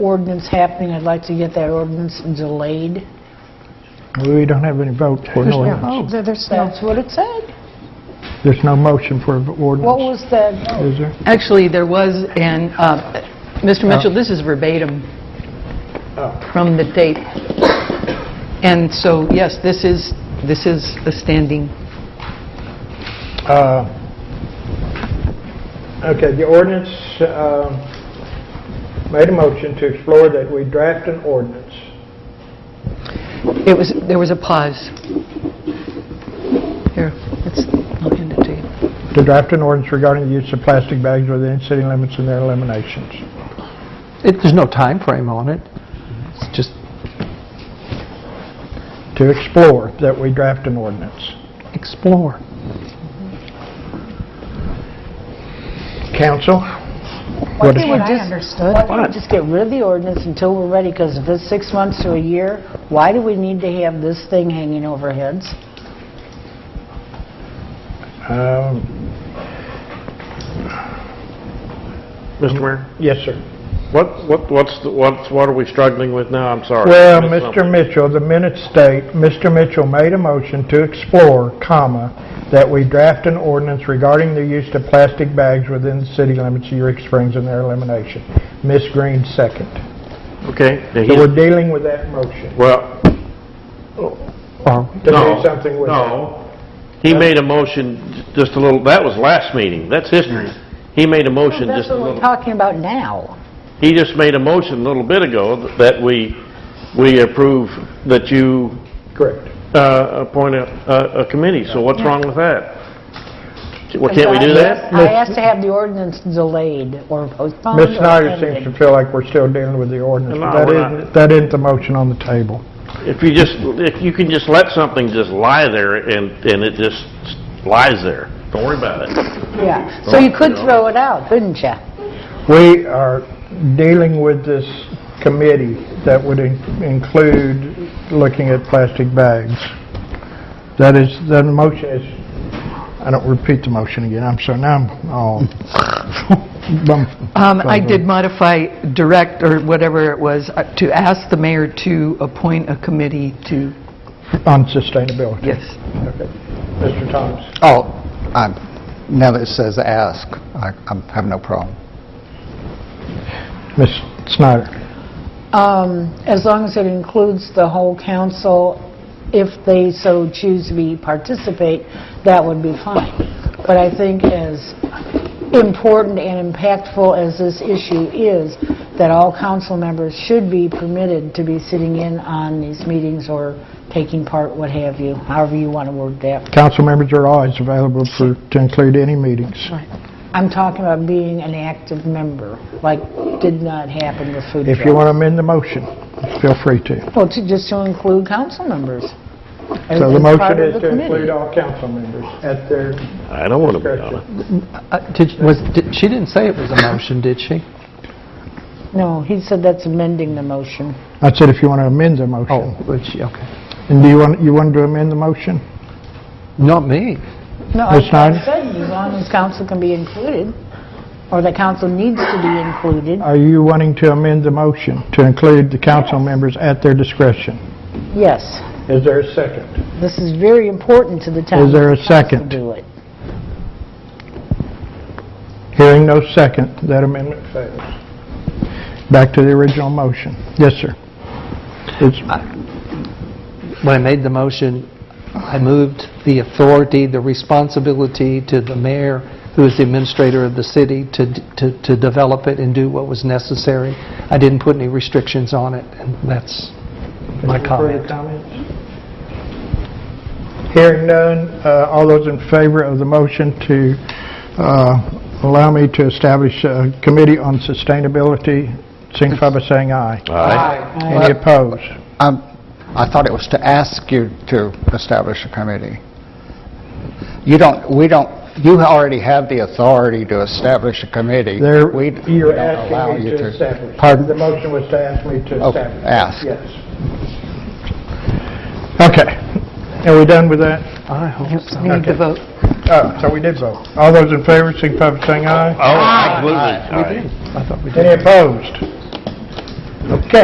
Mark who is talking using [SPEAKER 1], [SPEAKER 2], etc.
[SPEAKER 1] ordinance happening, I'd like to get that ordinance delayed.
[SPEAKER 2] We don't have any votes for an
[SPEAKER 3] Oh,
[SPEAKER 2] ordinance.
[SPEAKER 3] there- there's no,
[SPEAKER 1] That's what it said.
[SPEAKER 2] There's no motion for an
[SPEAKER 1] What
[SPEAKER 2] ordinance,
[SPEAKER 1] was the,
[SPEAKER 2] is there?
[SPEAKER 4] Actually, there was, and, uh, Mr. Mitchell, this is verbatim
[SPEAKER 2] Oh,
[SPEAKER 4] from the date. And so, yes, this is, this is a standing,
[SPEAKER 2] Uh, Okay, the ordinance, um, made a motion to explore that we draft an ordinance.
[SPEAKER 4] it was, there was a pause. Here, it's, I'll hand it to you.
[SPEAKER 2] To draft an ordinance regarding the use of plastic bags within city limits and their eliminations.
[SPEAKER 5] It, there's no time frame on it. It's just,
[SPEAKER 2] To explore that we draft an ordinance.
[SPEAKER 5] explore.
[SPEAKER 2] Council?
[SPEAKER 1] why
[SPEAKER 2] What is-
[SPEAKER 1] can't we
[SPEAKER 3] what I
[SPEAKER 1] just,
[SPEAKER 3] understood.
[SPEAKER 1] why can't we just get rid of the ordinance until we're ready? Because if it's six months to a year, why do we need to have this thing hanging over heads?
[SPEAKER 2] um,
[SPEAKER 6] Mr.
[SPEAKER 2] Mm-hmm.
[SPEAKER 6] Mayor,
[SPEAKER 2] Yes, sir.
[SPEAKER 6] what, what, what's, the- what's, what are we struggling with now? I'm sorry.
[SPEAKER 2] Well,
[SPEAKER 6] I missed
[SPEAKER 2] Mr.
[SPEAKER 6] something.
[SPEAKER 2] Mitchell, the minutes state, Mr. Mitchell made a motion to explore, comma, that we draft an ordinance regarding the use of plastic bags within the city limits of Eureka Springs and their elimination. Ms. Green, second.
[SPEAKER 6] Okay. now
[SPEAKER 2] So we're
[SPEAKER 6] he-
[SPEAKER 2] dealing with that motion
[SPEAKER 6] Well,
[SPEAKER 5] Are we?
[SPEAKER 2] to do
[SPEAKER 6] no.
[SPEAKER 2] something with it.
[SPEAKER 6] No. He made a motion j- just a little, that was last meeting. That's history. He made a motion
[SPEAKER 1] That's
[SPEAKER 6] just a
[SPEAKER 1] what we're
[SPEAKER 6] little,
[SPEAKER 1] talking about now.
[SPEAKER 6] he just made a motion a little bit ago th- that we, we approve that you,
[SPEAKER 2] Correct.
[SPEAKER 6] uh, appoint a, a- a committee. So what's wrong with that? Well, can't we do that?
[SPEAKER 1] I asked to have the ordinance delayed or postponed.
[SPEAKER 2] Ms.
[SPEAKER 1] or
[SPEAKER 2] Snyder
[SPEAKER 1] pending.
[SPEAKER 2] seems to feel like we're still dealing with the ordinance.
[SPEAKER 6] No,
[SPEAKER 2] but that
[SPEAKER 6] we're not.
[SPEAKER 2] isn't- That isn't the motion on the table.
[SPEAKER 6] If you just, if you can just let something just lie there and, and it just lies there. Don't worry about it.
[SPEAKER 1] Yeah, so you could throw it out, couldn't you?
[SPEAKER 2] We are dealing with this committee that would in- include looking at plastic bags. That is, the motion is, I don't repeat the motion again, I'm sorry, now I'm all... bum-
[SPEAKER 4] Um, I did modify direct, or whatever it was, uh, to ask the mayor to appoint a committee to,
[SPEAKER 2] On sustainability.
[SPEAKER 4] yes.
[SPEAKER 2] Okay. Mr. Thomas?
[SPEAKER 7] Oh, I'm, now that it says ask, I I have no problem.
[SPEAKER 2] Ms. Snyder?
[SPEAKER 1] Um, As long as it includes the whole council, if they so choose to be, participate, that would be fine. But I think as important and impactful as this issue is, that all council members should be permitted to be sitting in on these meetings or taking part, what have you, however you want to word that.
[SPEAKER 2] Council members are always available for, to include any meetings.
[SPEAKER 1] I'm talking about being an active member, like did not happen with food
[SPEAKER 2] If
[SPEAKER 1] trucks.
[SPEAKER 2] you want to amend the motion, feel free to.
[SPEAKER 1] Well, to, just to include council members.
[SPEAKER 2] So the
[SPEAKER 1] As part
[SPEAKER 2] motion
[SPEAKER 1] of
[SPEAKER 2] is
[SPEAKER 1] the
[SPEAKER 2] to
[SPEAKER 1] committee.
[SPEAKER 2] include all council members at their
[SPEAKER 6] I don't want to be on it.
[SPEAKER 2] discretion.
[SPEAKER 5] Uh, did, was, did- she didn't say it was a motion, did she?
[SPEAKER 1] No, he said that's amending the motion.
[SPEAKER 2] I said if you want to amend the
[SPEAKER 5] Oh,
[SPEAKER 2] motion.
[SPEAKER 5] but she, okay.
[SPEAKER 2] And do you want, you want to amend the motion?
[SPEAKER 5] Not me.
[SPEAKER 1] No, I
[SPEAKER 2] Ms. Snyder?
[SPEAKER 1] I said as long as council can be included, or the council needs to be included,
[SPEAKER 2] Are you wanting to amend the motion to include the council members at their discretion?
[SPEAKER 1] yes.
[SPEAKER 2] Is there a second?
[SPEAKER 1] This is very important to the town.
[SPEAKER 2] Is there a
[SPEAKER 1] for the council
[SPEAKER 2] second?
[SPEAKER 1] to do it.
[SPEAKER 2] Hearing no second, that amendment fails. Back to the original motion. Yes, sir. It's-
[SPEAKER 5] When I made the motion, I moved the authority, the responsibility to the mayor, who is the administrator of the city, to, to, to develop it and do what was necessary. I didn't put any restrictions on it, and that's my comment.
[SPEAKER 2] Further comments? Hearing none, uh, all those in favor of the motion to uh, allow me to establish a committee on sustainability, signify by saying aye. Any opposed?
[SPEAKER 7] Um, I thought it was to ask you to establish a committee. You don't, we don't, you already have the authority to establish a committee.
[SPEAKER 2] There,
[SPEAKER 7] We d-
[SPEAKER 2] you're
[SPEAKER 7] don't allow
[SPEAKER 2] asking me
[SPEAKER 7] you
[SPEAKER 2] to establish.
[SPEAKER 7] Pardon?
[SPEAKER 2] The motion was to ask me to
[SPEAKER 7] Oh,
[SPEAKER 2] establish.
[SPEAKER 7] ask.
[SPEAKER 2] Yes. Okay. Are we done with that?
[SPEAKER 5] I hope so.
[SPEAKER 4] We need to
[SPEAKER 2] Okay.
[SPEAKER 4] vote.
[SPEAKER 2] Uh, So we did vote. All those in favor, signify by saying aye.
[SPEAKER 6] Oh, absolutely.
[SPEAKER 5] We did. I thought we did.
[SPEAKER 2] Any opposed?